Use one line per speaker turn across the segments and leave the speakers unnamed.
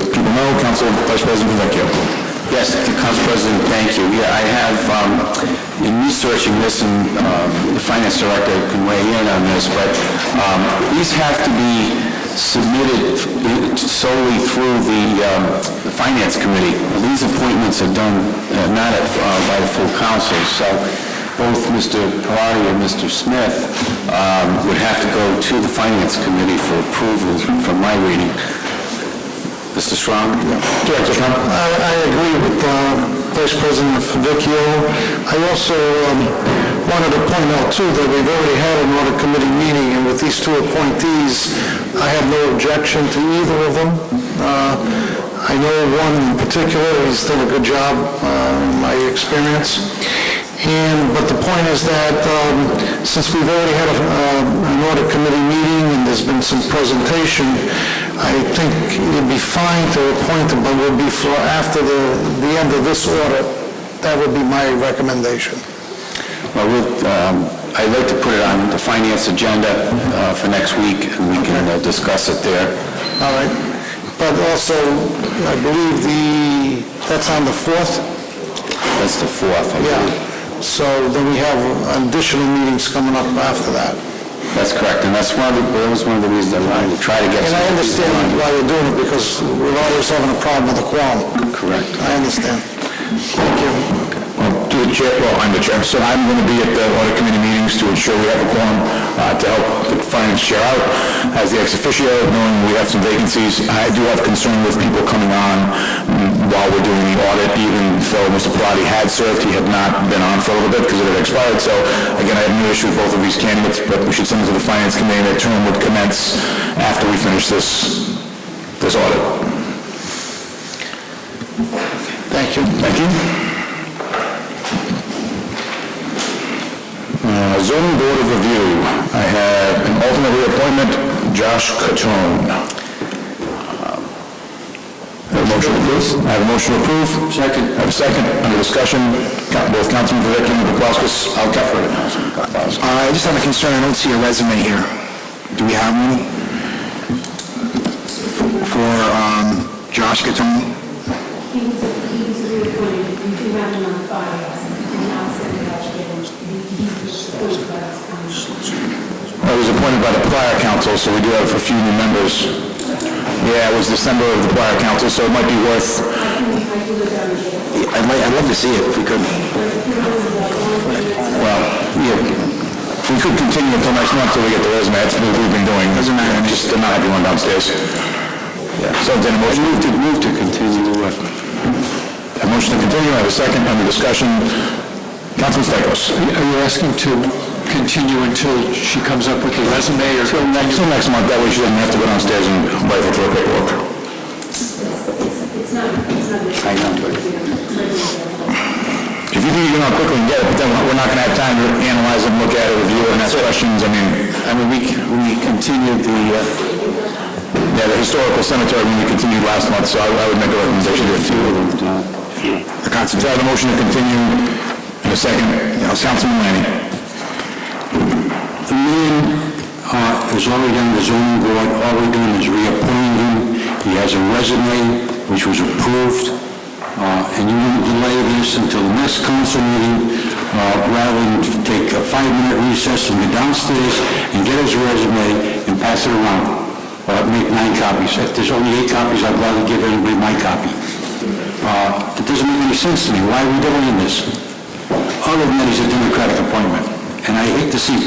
No. Council Vice President Vecchio. Yes, Council President, thank you. Yeah, I have, um, in researching this, and um, the Finance Director can weigh in on this, but um, these have to be submitted solely through the um, the Finance Committee. These appointments are done uh, not at- uh, by the full council, so both Mr. Parati and Mr. Smith um, would have to go to the Finance Committee for approval, from my reading. Mr. Schramm? Director Schramm?
I I agree with uh, Vice President Favicchio. I also um, wanted to point out, too, that we've already had an audit committee meeting, and with these two appointees, I have no objection to either of them. Uh, I know one in particular, he's done a good job, uh, in my experience. And, but the point is that um, since we've already had a- uh, an audit committee meeting and there's been some presentation, I think it'd be fine to appoint them, but it would be for after the, the end of this audit. That would be my recommendation.
Well, we'll, um, I'd like to put it on the Finance agenda uh, for next week, and we can uh, discuss it there.
All right? But also, I believe the, that's on the 4th?
That's the 4th, I
Yeah.
believe.
So then we have additional meetings coming up after that.
That's correct, and that's one of the, that was one of the reasons I wanted to try to get...
And
some
I
of these
understand
done.
why you're doing it, because we're always having a problem with the quorum.
Correct.
I understand. Thank you.
Well, To the chair, well, I'm the chair, so I'm going to be at the audit committee meetings to ensure we have a quorum uh, to help the finance chair out as the ex officio, knowing we have some vacancies. I do have concern with people coming on mm, while we're doing the audit, even though Mr. Pilati had served, he had not been on for a little bit because it had expired. So again, I have no issue with both of these candidates, but we should send it to the finance committee. Their term would commence after we finish this, this audit.
Thank you.
Thank you. Uh, Zoning Board of Review, I have an alternate reappointment, Josh Catone. Have a motion to approve? I have a motion to approve. Second. I have a second, under discussion, Coun- both Councilman Vivekio and Paplaskas, I'll cover it. Uh, I just have a concern, I don't see a resume here. Do we have one? For um, Josh Catone?
He was, he was reappointed, you do have him on file, and I'll send it out to him. He he was appointed by this council.
I was appointed by the prior council, so we do have a few new members. Yeah, it was December of the prior council, so it might be worth...
I can, I can go down and get it.
I'd like, I'd love to see it if we could. Well, yeah, we could continue until next month till we get the resume, that's what we've been doing. Doesn't matter. Just to not have everyone downstairs. So then a motion... Move to, move to continue the... A motion to continue, I have a second, under discussion. Councilman Stichels?
Are you asking to continue until she comes up with the resume, or
Till next, till next month, that way she doesn't have to go downstairs and wait for paperwork.
It's not, it's not.
I know.
know.
If you think you're gonna quickly get it, but then we're not gonna have time to analyze it, look at it, review it, and ask questions, I mean... I mean, we, we continued the, uh... Yeah, the historical cemetery, we continued last month, so I I would make a recommendation to... The concept, I have a motion to continue in a second, you know, Councilman Lanning.
the man uh, is already on the zoning board, all we're doing is reappointing him, he has a resume which was approved, Uh, and you want to delay this until the next council meeting, uh, rather than take a five-minute recess and go downstairs and get his resume and pass it around, or make nine copies. If there's only eight copies, I'd rather give everybody my copy. Uh, It doesn't make any sense to me, why are we doing this? Other than that, he's a Democratic appointment, and I hate to see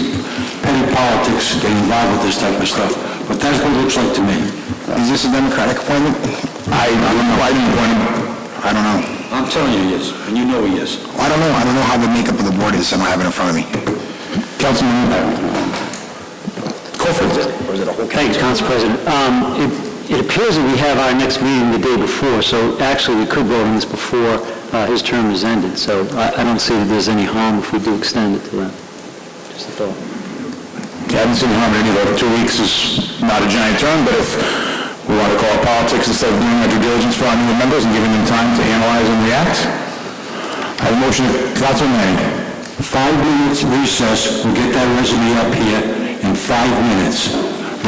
petty politics get involved with this type of stuff, but that's what it looks like to me.
Is this a Democratic appointment? I, I don't know, I didn't appoint him. I don't know.
I'm telling you he is, and you know he is.
I don't know, I don't know how the makeup of the board is, I don't have it in front of me. Councilman... Crawford? Or is it a whole...
Thanks, Council President. Um, it- It appears that we have our next meeting the day before, so actually, we could vote on this before uh, his term is ended, so I I don't see that there's any harm if we do extend it to that. Just a thought.
Yeah, I haven't seen harm in any of it. Two weeks is not a giant term, but if we want to call it politics instead of doing our due diligence for our new members and giving them time to analyze and react, I have a motion, Councilman Lanning.
Five minutes recess, we'll get that resume up here in five minutes,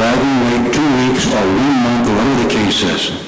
rather than wait two weeks or one month, or whatever the case is.